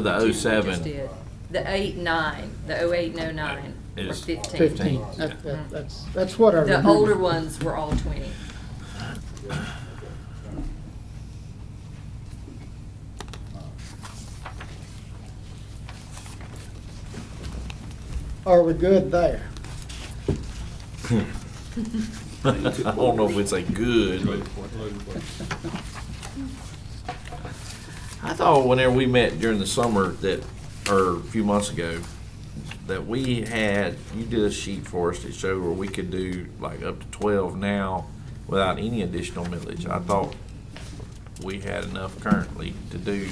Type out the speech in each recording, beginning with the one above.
The Just 07 did. The eight, nine, the oh eight and oh nine were is fifteen. Mm-hmm. 15, That- that- that's, that's what I The remember. older ones were all twenty. Are we good there? I don't know if it's a good, but I thought whenever we met during the summer that, or a few months ago, that we had, you did a sheet for us that showed where we could do like up to twelve now without any additional millage. I thought we had enough currently to do,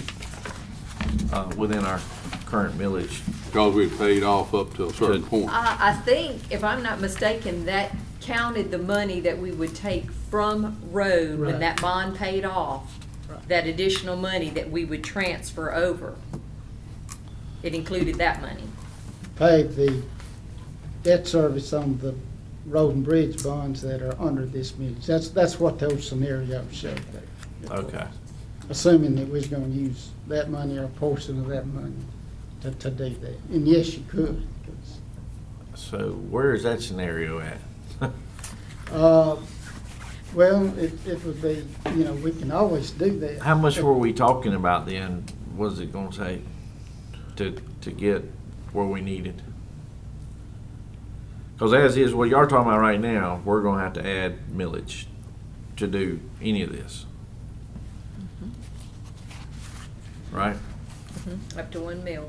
uh, within our current millage. Because we paid off up to a certain point. I, I think, if I'm not mistaken, that counted the money that we would take from road when Right. that bond paid off, Right. that additional money that we would transfer over. It included that money. Pay the debt service on the road and bridge bonds that are under this millage. That's, that's what those scenarios show there. Okay. Assuming that we're gonna use that money or a portion of that money to, to do that. And yes, you could. 'cause So where is that scenario at? Uh, Well, it, it would be, you know, we can always do that. How much were we talking about then? What is it gonna take to, to get where we needed? Cause as is, what y'all are talking about right now, we're gonna have to add millage to do any of this. Mm-hmm. Right? Up to one mil. I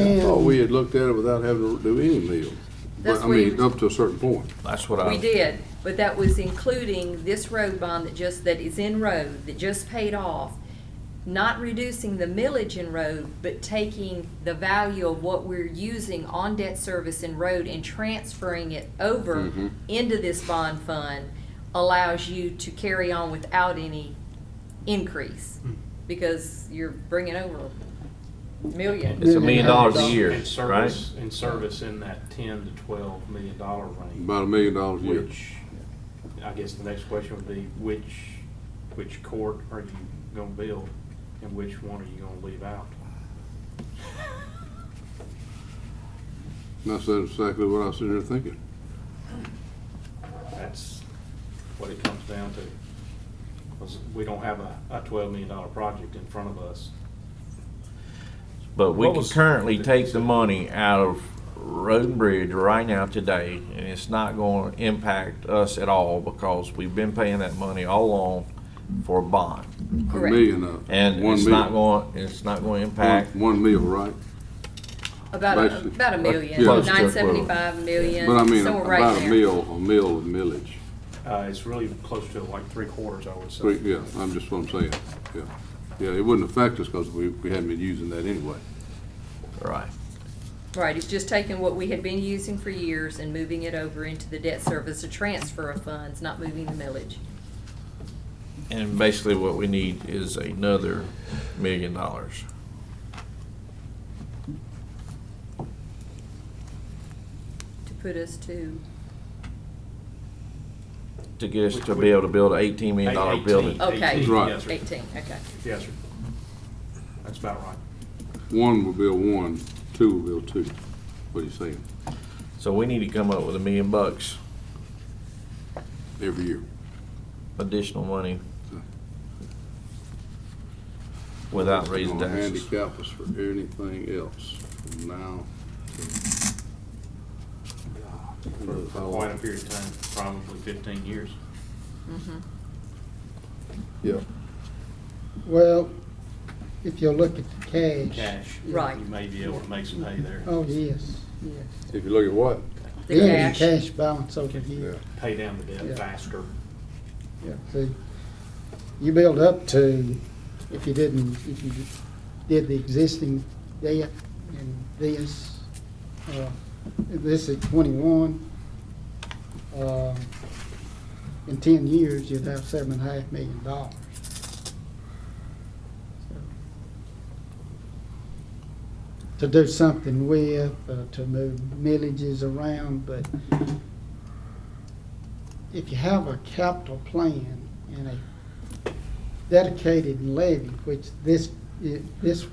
Oh, thought And- we had looked at it without having to do any meals. That's But I where mean, you- up to a certain point. That's what I. We did, but that was including this road bond that just, that is in road, that just paid off. Not reducing the millage in road, but taking the value of what we're using on debt service in road and transferring it over Mhm. into this bond fund allows you to carry on without any increase, because you're bringing over a million. It's a million dollars a year, And service, and service in that ten to twelve million dollar range, About a million dollars a year. which, I guess the next question would be, which, which court are you gonna build? And which one are you gonna leave out? That's exactly what I was sitting there thinking. That's what it comes down to. 'Cause we don't have a, a twelve million dollar project in front of us. But we What can was- currently take the money out of road and bridge right now today, and it's not gonna impact us at all because we've been paying that money all along for a bond. A Correct. million of. And one it's not meal. going, it's not going to One- impact, One meal, right? About a, Basically, about a million, yeah. Close to it, well. nine seventy-five million, But I mean, somewhere right about a there. meal, a meal of millage. Uh, it's really close to like three quarters, I would say. Three- Yeah, I'm just what I'm saying, yeah. Yeah, it wouldn't affect us because we, we hadn't been using that anyway. right? Right, it's just taking what we had been using for years and moving it over into the debt service, a transfer of funds, not moving the millage. And basically what we need is another million dollars. To put us to, To get us to be able to build an eighteen million dollar Eight- building. Okay. Eighteen, Right. yes, sir. eighteen, okay. Yes, sir. That's about right. One will build one, two will build two. What are you saying? So we need to come up with a million bucks Every year. additional money without raising Gonna taxes. Handicap us for anything else from now for to. for quite a period of time, probably fifteen years. Yeah. Well, if you look at the cash. Cash. Right. You may be able to make some hay there, Oh, yes, yes. If you look at what? The Then cash. Cash balance over here, pay down the Yeah. debt faster. yeah, see, you build up to, if you didn't, if you did the existing debt and this, uh, this is twenty-one, uh, in ten years, you'd have seven and a half million dollars. To do something with, uh, to move millages around, but if you have a capital plan and a dedicated levy, which this, i- this